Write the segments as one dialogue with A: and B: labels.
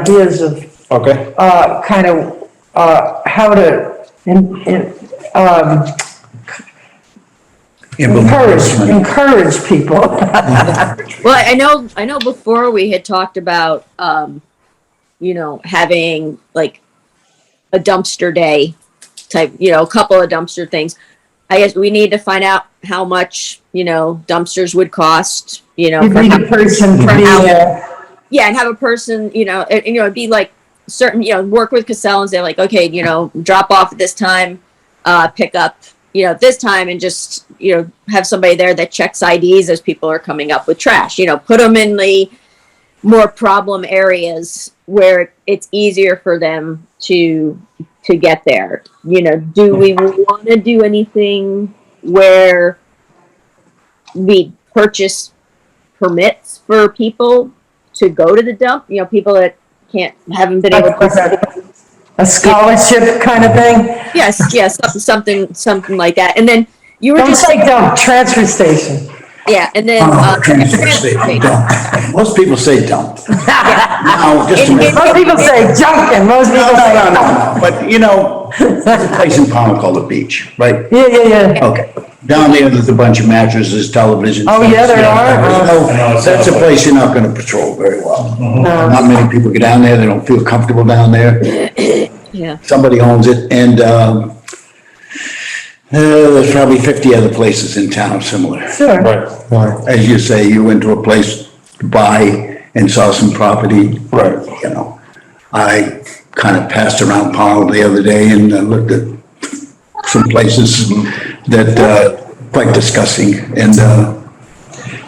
A: ideas of,
B: Okay,
A: uh, kind of, uh, how to, in, in, um, encourage, encourage people.
C: Well, I know, I know before we had talked about, um, you know, having like a dumpster day type, you know, a couple of dumpster things. I guess we need to find out how much, you know, dumpsters would cost, you know.
A: You
C: for
A: need
C: how-
A: a person
B: Mm-hmm.
A: for the, uh,
C: yeah, and have a person, you know, and, and, you know, it'd be like certain, you know, work with Cassell and say like, okay, you know, drop off at this time, uh, pick up, you know, this time, and just you know, have somebody there that checks IDs as people are coming up with trash. You know, put them in the more problem areas where it's easier for them to to get there. You know, do we want to do anything where we purchase permits for people to go to the dump. You know, people that can't haven't been able
A: like
C: to.
A: a- a scholarship kind of thing.
C: Yes, yes, some- something, something like that. And then you were
A: Don't
C: just
A: say dump, transfer station.
C: yeah, and then
D: Oh,
C: uh,
D: transfer
C: transfer
D: station,
C: station.
D: dump.
A: Uh,
D: Most people say dump. Now, just a
C: It-
D: minute.
C: it-
A: Most people say junk and most
D: No,
A: people
D: no,
A: say
D: no,
A: dump.
D: no, no, but you know, there's a place in Pownell called the beach, right?
A: Yeah, yeah, yeah.
D: Okay. Down there, there's a bunch of mattresses, television.
A: Oh, yeah, there are.
D: There's no-
B: I know, it's
D: That's a
B: awful.
D: place you're not gonna patrol very well.
A: Uh-huh.
D: Not many people get down there, they don't feel comfortable down there.
C: Yeah,
D: somebody owns it, and, um, uh, there's probably fifty other places in town similar.
A: Sure.
B: right, right,
D: As you say, you went to a place to buy and saw some property.
B: Right.
D: You know, I kind of passed around Powell the other day and uh, looked at some places that, uh, quite disgusting, and, uh,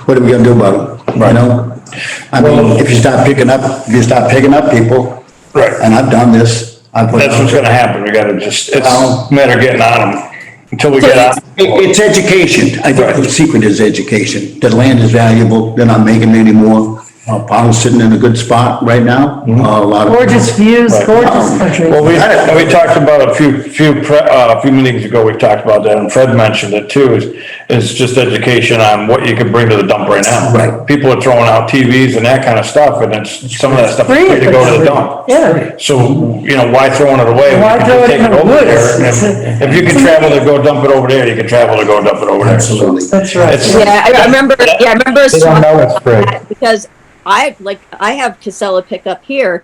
D: what are we gonna do about them, you know? I mean, if you start picking up, if you start picking up people,
B: right.
D: and I've done this, I've. put-
B: That's what's gonna happen, we gotta just, it's a matter of getting on them, until we get on.
D: It- It's education. I think the secret is education. The land is valuable. They're not making any more. Uh, Powell's sitting in a good spot right now. Uh, A lot of.
A: Gorgeous views, gorgeous country.
B: Well, we, and we talked about a few, few, pre- uh, a few meetings ago, we talked about that, and Fred mentioned it too, is, is just education on what you can bring to the dump right now.
D: Right.
B: People are throwing out TVs and that kind of stuff, and it's, some of that stuff is
A: Free.
B: free to go to the dump.
A: Yeah.
B: So, you know, why throwing it away? We
A: Why
B: can
A: throw
B: just
A: it
B: take
A: in the
B: over
A: woods?
B: there, and
A: It's a-
B: If if you can travel to go dump it over there, you can travel to go dump it over there.
D: Absolutely.
A: That's right.
B: It's-
C: yeah. I- I remember. Yeah, I remember.
E: They don't know it's free.
C: because I like I have Casella pickup here.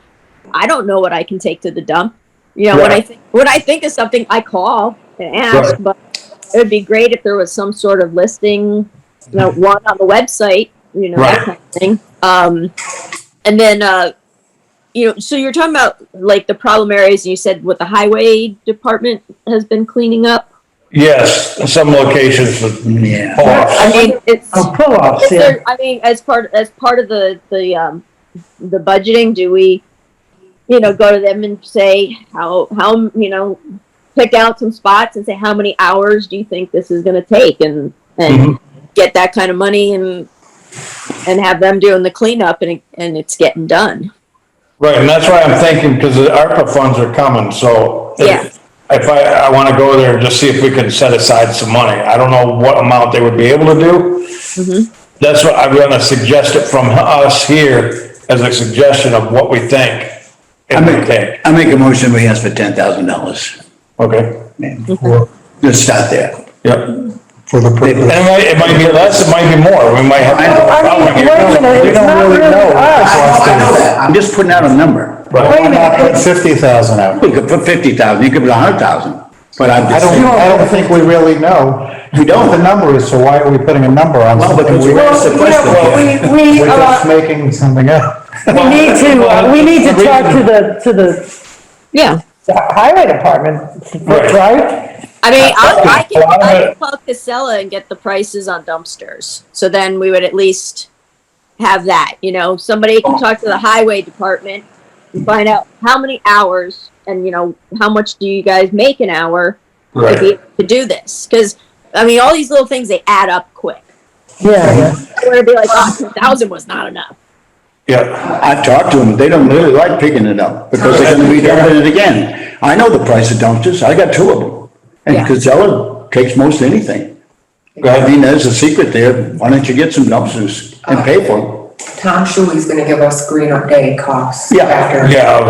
C: I don't know what I can take to the dump. You know, when I
B: Right.
C: think when I think of something, I call and ask.
B: Right.
C: But it would be great if there was some sort of listing, you know, one on the website, you know, that
B: Right.
C: kind of thing. Um, and then uh, you know, so you're talking about like the problem areas. and You said what the highway department has been cleaning up.
B: Yes, some locations with
D: Yeah.
B: pull-offs.
C: I mean, it's
A: Oh, pull-ups,
C: Is
A: yeah.
C: there, I mean, as part, as part of the, the, um, the budgeting, do we, you know, go to them and say, how, how, you know, pick out some spots and say, how many hours do you think this is gonna take and, and get that kind of money and, and have them doing the cleanup and, it- and it's getting done.
B: Right, and that's why I'm thinking, because the ARPA funds are coming, so. if-
C: Yeah.
B: If I, I wanna go there and just see if we can set aside some money, I don't know what amount they would be able to do.
A: Mm-hmm.
B: That's what, I'm gonna suggest it from us here as a suggestion of what we think.
D: I
B: If we
D: make,
B: think,
D: I make a motion, we ask for ten thousand dollars.
B: okay,
D: Let's start there.
B: yep. And
E: for the
B: it
E: purpose.
B: might, it might be less, it might be more, we might have.
A: I mean, wait a minute,
B: We
A: it's
B: don't
A: not
B: really
A: really
B: know.
A: us.
D: I know that. I'm just putting out a number.
B: Right.
A: Wait a
E: I put
A: minute,
E: fifty thousand out.
D: You could put fifty thousand, you could put a hundred thousand, but I'm
E: I
D: just.
E: don't, I don't think we really know.
D: We don't.
E: What the number is, so why are we putting a number on
D: Well,
E: something?
D: because
E: we-
D: we're
A: well,
D: the
A: you
D: question.
A: know, we, we,
E: We're just
A: uh,
E: making something up.
A: we need to, uh, we need to talk to the, to the
C: Yeah.
A: highway department,
B: Right.
A: right?
C: I mean, I, I can,
B: Well, I'm
C: I
B: gonna-
C: can call Casella and get the prices on dumpsters. So then we would at least have that, you know, somebody can talk to the highway department and find out how many hours and, you know, how much do you guys make an hour to, be, to do this? Because, I mean, all these little things, they add up quick.
A: Yeah, yeah.
C: I want to be like, oh, 2,000 was not enough.
B: Yeah,
D: I've talked to them, they don't really like picking it up, because they're gonna be dumping it again. I know the price of dumpsters, I got two of them,
C: Yeah.
D: and Casella takes most anything.
B: go
D: I
B: ahead.
D: mean, there's a secret there, why don't you get some dumpsters and pay for
F: Tom Shuey's gonna give us green update costs
A: Yeah.
F: after.
B: Yeah,